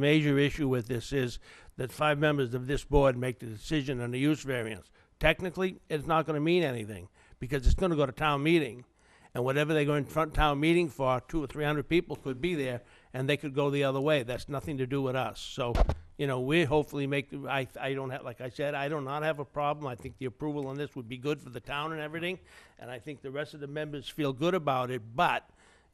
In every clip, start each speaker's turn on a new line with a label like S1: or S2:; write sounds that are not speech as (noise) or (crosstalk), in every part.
S1: Major issue with this is that five members of this board make the decision on the use variance. Technically, it's not gonna mean anything, because it's gonna go to town meeting. And whatever they go in front town meeting for, two or three hundred people could be there, and they could go the other way. That's nothing to do with us. So, you know, we hopefully make, the- I, I don't have, like I said, I do not have a problem. I think the approval on this would be good for the town and everything, and I think the rest of the members feel good about it, but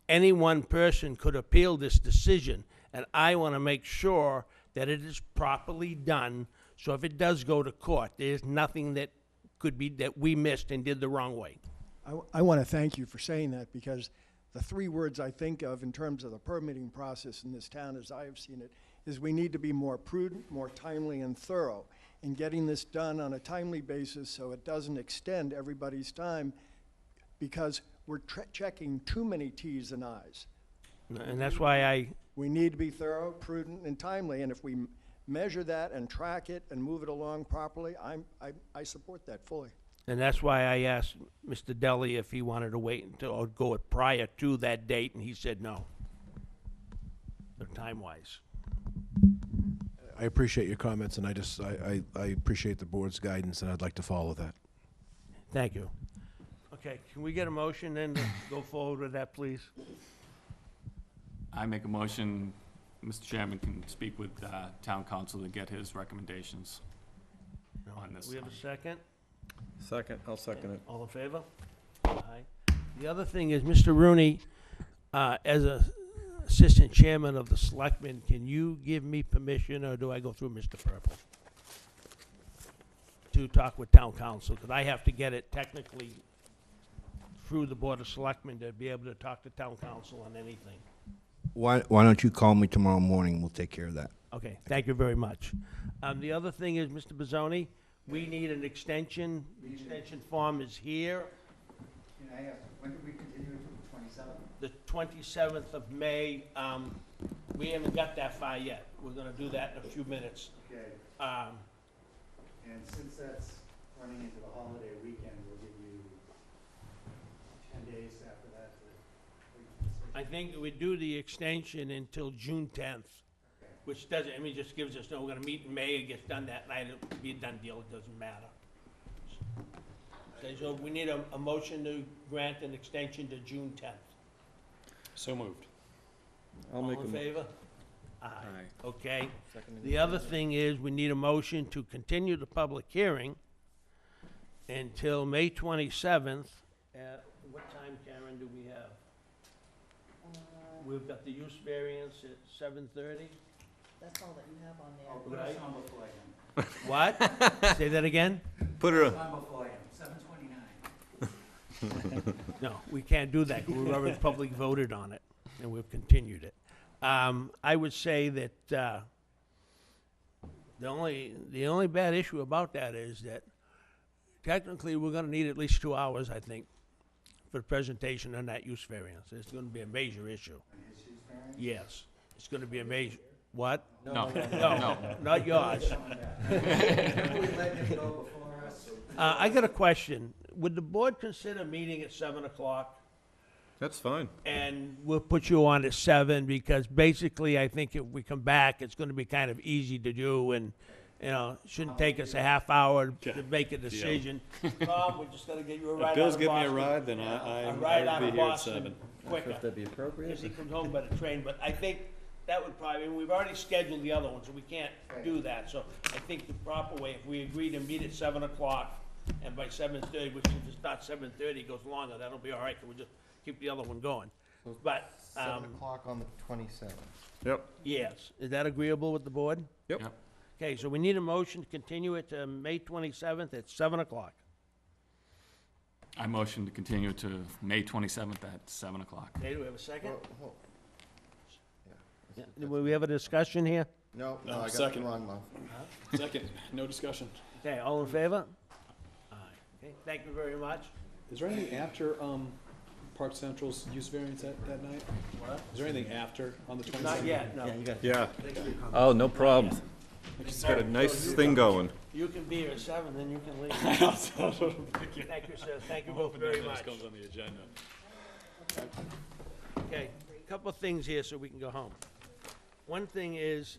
S1: any one person could appeal this decision, and I want to make sure that it is properly done, so if it does go to court, there's nothing that could be, that we missed and did the wrong way.
S2: I, want to thank you for saying that because the three words I think of in terms of the permitting process in this town, as I have seen it, is we need to be more prudent, more timely, and thorough in getting this done on a timely basis so it doesn't extend everybody's time because we're tre- checking too many T's and I's.
S1: And that's why I,
S2: We need to be thorough, prudent, and timely, and if we m- measure that and track it and move it along properly, I'm, I, I support that fully.
S1: and that's why I asked Mr. Deli if he wanted to wait until, or go it prior to that date, and he said no. Time-wise.
S3: I appreciate your comments, and I just, I, I, I appreciate the board's guidance, and I'd like to follow that.
S1: Thank you. Okay, can we get a motion then to go forward with that, please?
S4: I make a motion, Mr. Chairman can speak with uh, town council to get his recommendations. On this
S1: We have a
S4: side.
S1: second?
S5: Second, I'll second it.
S1: All in favor? Aye. The other thing is, Mr. Rooney, uh, as a assistant chairman of the selectmen, can you give me permission, or do I go through Mr. Purple? To talk with town council, because I have to get it technically through the board of selectmen to be able to talk to town council on anything.
S6: Why, why don't you call me tomorrow morning? We'll take care of that.
S1: Okay, thank you very much. Um, the other thing is, Mr. Bizzoni, we need an extension. The extension form is here.
S7: Can I ask, when did we continue it to the twenty-seventh?
S1: the twenty-seventh of May, um, we haven't got that far yet. We're gonna do that in a few minutes.
S7: Okay,
S1: Um,
S7: and since that's running into the holiday weekend, we'll give you ten days after that to make a decision.
S1: I think we do the extension until June tenth, which doesn't, I mean, just gives us, no, we're gonna meet in May, it gets done that night, it'll be a done deal, it doesn't matter. Okay, so we need a, a motion to grant an extension to June tenth.
S4: So moved.
S5: I'll
S1: All
S5: make a.
S1: in
S5: mo-
S1: favor? Aye.
S4: Aye.
S1: Okay.
S5: second it.
S1: The other thing is, we need a motion to continue the public hearing until May twenty-seventh. At what time, Karen, do we have? We've got the use variance at seven thirty.
S8: That's all that you have on there.
S7: I'll put us
S1: Right.
S7: on before I am,
S1: What? Say that again?
S5: Put her, on.
S7: on before I am, seven twenty-nine.
S1: No, we can't do that, 'cause we've already public voted on it, and we've continued it. Um, I would say that, uh, the only, the only bad issue about that is that technically, we're gonna need at least two hours, I think, for presentation on that use variance. It's gonna be a major issue. Yes, it's gonna be a major, what?
S4: No,
S1: No, not yours. Uh, I got a question. Would the board consider meeting at seven o'clock?
S5: that's fine.
S1: and we'll put you on at seven because basically I think if we come back, it's gonna be kind of easy to do and, you know, shouldn't take us a half hour to make a decision. Tom, we just gotta get you a ride out of Boston.
S9: Bill's giving me a ride, then I-
S1: A
S9: I'm-
S1: ride
S9: I'll
S1: out
S9: be
S1: of
S9: here at
S1: Boston
S9: seven.
S1: Quicker.
S5: If that'd be appropriate.
S1: Because he comes home by the train, but I think that would probably, we've already scheduled the other one, so we can't do that. So I think the proper way, if we agree to meet at seven o'clock, and by seven thirty, which if it's not seven thirty, it goes longer, that'll be all right, 'cause we'll just keep the other one going. But, um,
S7: o'clock on the twenty-seventh.
S5: Yep,
S1: yes, is that agreeable with the board?
S5: yep.
S4: Yep.
S1: Okay, so we need a motion to continue it to May twenty-seventh at seven o'clock.
S4: I motion to continue to May twenty-seventh at seven o'clock.
S1: Okay, do we have a second? Yeah, Will we have a discussion here?
S7: No,
S9: No, I got the second.
S7: wrong month.
S9: Second, no discussion.
S1: Okay, all in favor? Aye. Okay, thank you very much.
S9: Is there anything after um, Park Central's use variance that, that night?
S1: What?
S9: Is there anything after on the 27th?
S1: Not yet, no.
S5: Yeah. Oh, no problem. She's got a nice thing going.
S1: You can be here at seven, then you can
S9: (laughs)
S1: leave. Thank you, sir, thank you both very much.
S9: comes on the agenda.
S1: Okay, couple of things here so we can go home. One thing is,